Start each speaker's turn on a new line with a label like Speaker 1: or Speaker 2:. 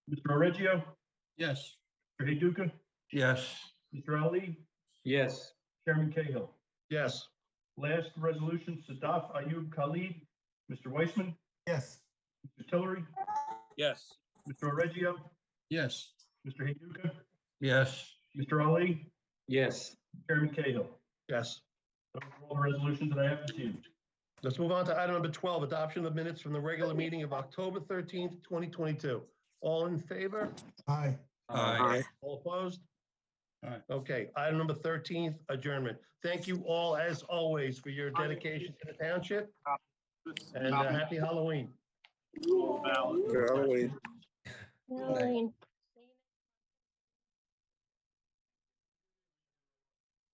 Speaker 1: Mr. Reggio,
Speaker 2: Yes.
Speaker 1: Mr. Heyduka,
Speaker 2: Yes.
Speaker 1: Mr. Ali,
Speaker 3: Yes.
Speaker 1: Chairman Cahill.
Speaker 2: Yes.
Speaker 1: Last resolution, Sadaf Ayub Khalid, Mr. Weissman,
Speaker 4: yes,
Speaker 1: Mr. Tillery,
Speaker 3: Yes.
Speaker 1: Mr. Reggio,
Speaker 2: Yes.
Speaker 1: Mr. Heyduka,
Speaker 2: Yes.
Speaker 1: Mr. Ali,
Speaker 3: Yes.
Speaker 1: Chairman Cahill.
Speaker 5: Yes.
Speaker 1: Those are all the resolutions that I have this evening.
Speaker 5: Let's move on to item number 12, adoption of minutes from the regular meeting of October 13th, 2022. All in favor?
Speaker 4: aye,
Speaker 2: Aye.
Speaker 5: All opposed?
Speaker 2: Aye.
Speaker 5: Okay, item number 13, adjournment. Thank you all, as always, for your dedication to the township. And uh, happy Halloween.
Speaker 6: Halloween.
Speaker 2: Aye.